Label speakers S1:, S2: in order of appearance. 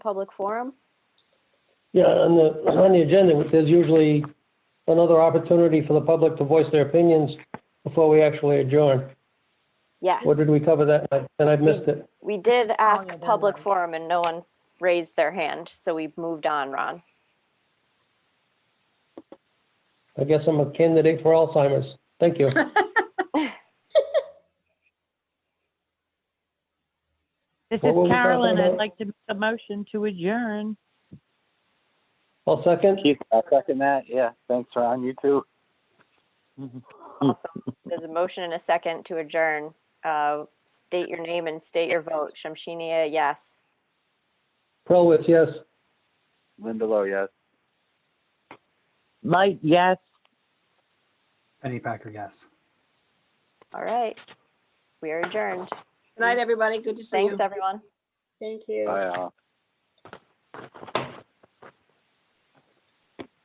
S1: public forum?
S2: Yeah, on the, on the agenda, there's usually another opportunity for the public to voice their opinions before we actually adjourn.
S1: Yes.
S2: Or did we cover that? night? And I missed it.
S1: We did
S3: Oh, yeah,
S1: ask
S3: there
S1: public
S3: was.
S1: forum and no one raised their hand, so we moved on, Ron.
S2: I guess I'm a candidate for Alzheimer's. Thank you.
S4: This is
S2: What were we talking
S4: Carolyn.
S2: about?
S4: I'd like to make a motion to adjourn.
S2: I'll second.
S5: Keith, I'll second that. Yeah, thanks, Ron. You too.
S1: Awesome. There's a motion and a second to adjourn. Uh, State your name and state your vote. Shamshiniya, yes.
S2: Prowitz, yes.
S5: Lindelof, yes.
S4: Light, yes.
S6: Penny Packer, yes.
S1: All right. We are adjourned.
S7: Good night, everybody. Good to see you.
S1: Thanks, everyone.
S8: Thank you.
S5: Bye all.